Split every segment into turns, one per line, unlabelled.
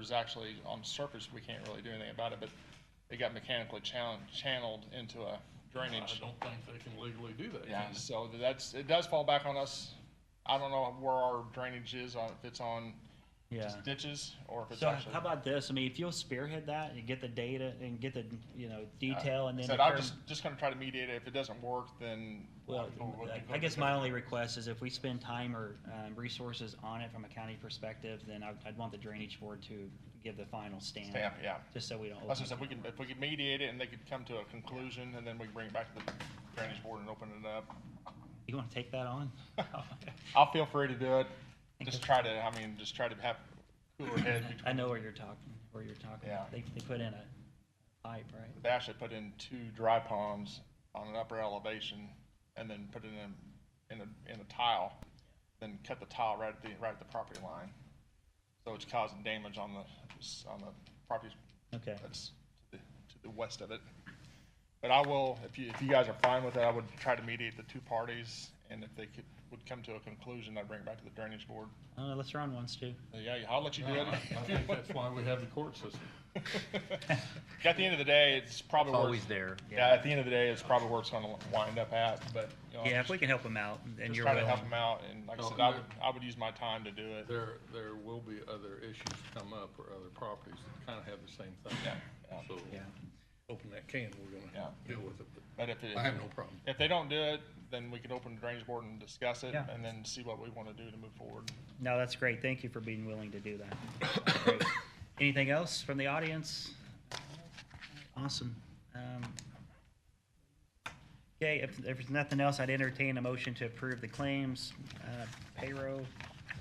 is actually on surface, we can't really do anything about it, but it got mechanically chan- channeled into a drainage.
I don't think they can legally do that.
Yeah,
can they?
so that's, it does fall back on us. I don't know where our drainage is, on if it's on
Yeah.
just ditches or if it's
So
actually.
how about this? I mean, if you'll spearhead that and get the data and get the, you know, detail and then.
Said, I'm
determine-
just, just gonna try to mediate it. If it doesn't work, then.
Well,
we'll look at
I guess
it.
my only request is if we spend time or um, resources on it from a county perspective, then I'd, I'd want the drainage board to give the final stamp.
Stamp, yeah.
Just so we don't.
That's what
open-
I said, we can, if we could mediate it and they could come to a conclusion and then we can bring it back to the drainage board and open it up.
You want to take that on?
I'll feel free to do it. Just try to, I mean, just try to have cooler head. between-
I know where you're talking, where you're talking.
Yeah.
They, they put in a pipe, right?
They actually put in two dry ponds on an upper elevation and then put it in, in a, in a tile. Then cut the tile right at the, right at the property line. So it's causing damage on the, on the property
Okay.
that's to the, to the west of it. But I will, if you, if you guys are fine with it, I would try to mediate the two parties and if they could, would come to a conclusion, I'd bring it back to the drainage board.
I don't know, let's run ones too.
Uh, Yeah, I'll let you do
No,
it.
I I think that's why we have the court system.
At the end of the day, it's probably.
It's
where-
always there.
Yeah, at the end of the day, it's probably where it's gonna wind up at, but, you know.
Yeah, if we can help them out and
Just
you're
try to
willing.
help them out, and like I
Oh,
said, I
yeah.
would, I would use my time to do it.
There, there will be other issues come up or other properties that kind of have the same thing.
Yeah, yeah.
So,
Yeah.
open that can, we're
Yeah.
gonna deal with it, but
But if it,
I have no problem.
if they don't do it, then we could open the drainage board and discuss it,
Yeah.
and then see what we wanna do to move forward.
No, that's great. Thank you for being willing to do that. Great. Anything else from the audience? Awesome. Um, Okay, if, if there's nothing else, I'd entertain a motion to approve the claims, uh, payroll,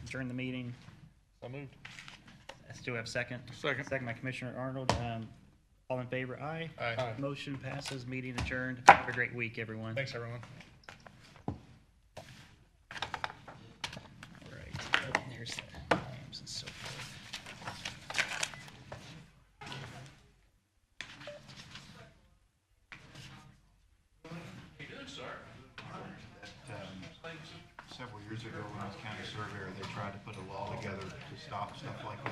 during the meeting.
So moved.
Do we have a second?
Second.
Second by Commissioner Arnold. Um, All in favor, aye.
Aye. Aye.
Motion passes, meeting adjourned. Have a great week, everyone.
Thanks, everyone.
All right. There's the claims and so forth.
um, several years ago, when I was county surveyor, they tried to put a law together to stop stuff like that.